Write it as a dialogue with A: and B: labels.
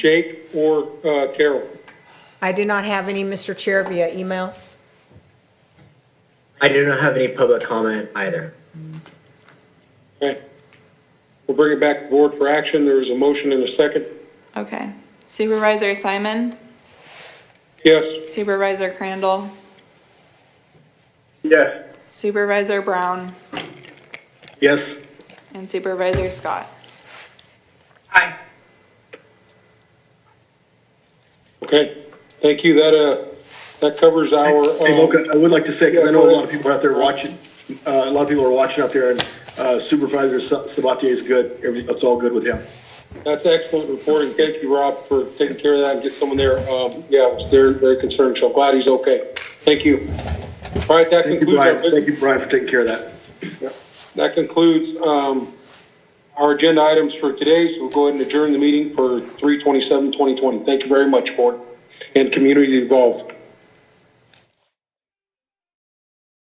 A: Jake or uh, Carol.
B: I do not have any, Mr. Chair, via email.
C: I do not have any public comment either.
A: Okay. We'll bring it back to board for action. There is a motion and a second.
D: Okay. Supervisor Simon,
A: Yes?
D: Supervisor Crandall,
A: Yes.
D: Supervisor Brown,
A: Yes.
D: and Supervisor Scott.
A: Aye. Okay, thank you. That, uh, that covers our.
E: Hey,
A: um,
E: Mocha, I would like to say, 'cause I know a lot of
A: Yeah,
E: people are out there watching, uh, a lot of people are watching out there, and uh, Supervisor Sa- Sabatier is good. Everything, it's all good with him.
A: That's excellent reporting. Thank you, Rob, for taking care of that and get someone there. Um, yeah, I was very, very concerned, so I'm glad he's okay. Thank you. All right, that
E: Thank you,
A: concludes our,
E: Brian.
A: bus-
E: Thank you, Brian, for taking care of that.
A: that concludes, um, our agenda items for today, so we'll go ahead and adjourn the meeting for 327-2020. Thank you very much, board and community involved.